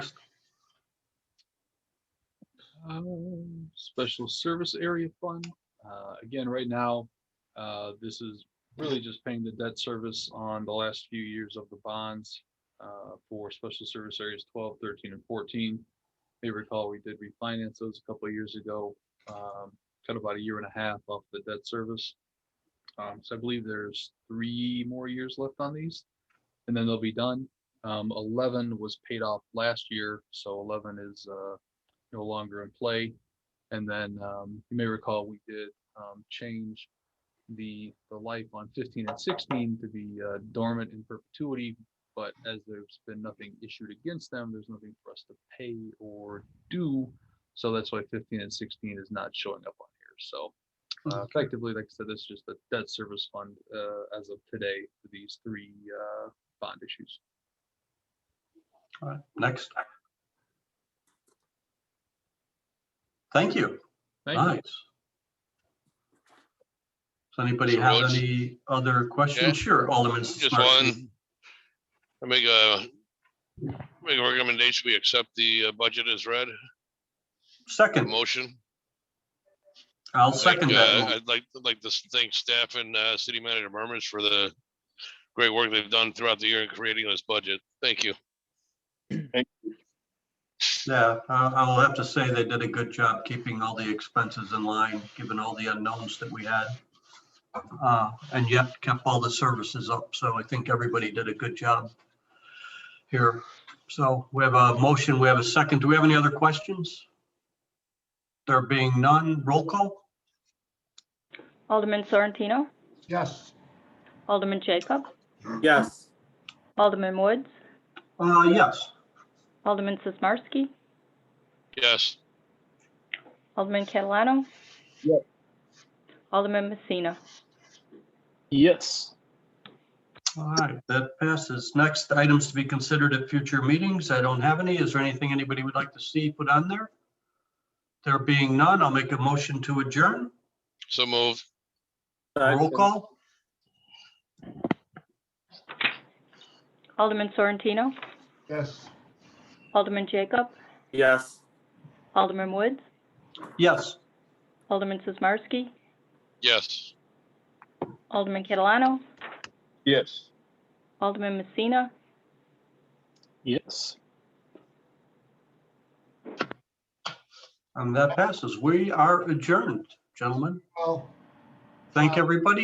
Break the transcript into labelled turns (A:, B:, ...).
A: Um, Special Service Area Fund. Uh, Again, right now, uh, this is really just paying the debt service on the last few years of the bonds uh, for Special Service Areas 12, 13, and 14. May recall, we did refinance those a couple of years ago, um, cut about a year and a half off the debt service. Um, So I believe there's three more years left on these, and then they'll be done. Um, 11 was paid off last year, so 11 is uh, no longer in play. And then um, you may recall, we did um, change the, the life on 15 and 16 to be uh, dormant in perpetuity. But as there's been nothing issued against them, there's nothing for us to pay or do. So that's why 15 and 16 is not showing up on here. So uh, effectively, like I said, this is just the debt service fund uh, as of today for these three uh, bond issues.
B: All right, next. Thank you.
A: Thank
B: Nice.
A: you.
B: Does anybody
C: So
B: have
C: what's-
B: any other
C: Yeah.
B: questions? Sure, Alderman.
C: Just
B: Smarty.
C: one. I make a, make a recommendation, we accept the uh, budget as read, the
B: Second,
C: motion.
B: I'll second
C: Like,
B: that.
C: uh,
B: mo-
C: I'd like, like to thank staff and uh, city manager Murmurs for the great work they've done throughout the year in creating this budget. Thank you.
B: Yeah, I- I'll have to say they did a good job keeping all the expenses in line, given all the unknowns that we had. Uh, And yet kept all the services up, so I think everybody did a good job here. So we have a motion, we have a second. Do we have any other questions? There being none, roll call?
D: Alderman Sorrentino?
E: Yes.
D: Alderman Jacob?
F: Yes,
D: Alderman Woods?
B: Uh, Yes.
D: Alderman Sismarski?
C: Yes,
D: Alderman Catalano?
F: Yes.
D: Alderman Messina?
F: yes,
B: All right, that passes. Next, items to be considered at future meetings. I don't have any. Is there anything anybody would like to see put on there? There being none, I'll make a motion to adjourn.
C: so moved.
B: Roll call?
D: Alderman Sorrentino?
E: Yes.
D: Alderman Jacob?
F: yes.
D: Alderman Woods?
B: Yes.
D: Alderman Sismarski?
C: Yes,
D: Alderman Catalano?
F: Yes.
D: Alderman Messina?
F: Yes.
B: And that passes. We are adjourned, gentlemen.
E: Well.
B: Thank everybody.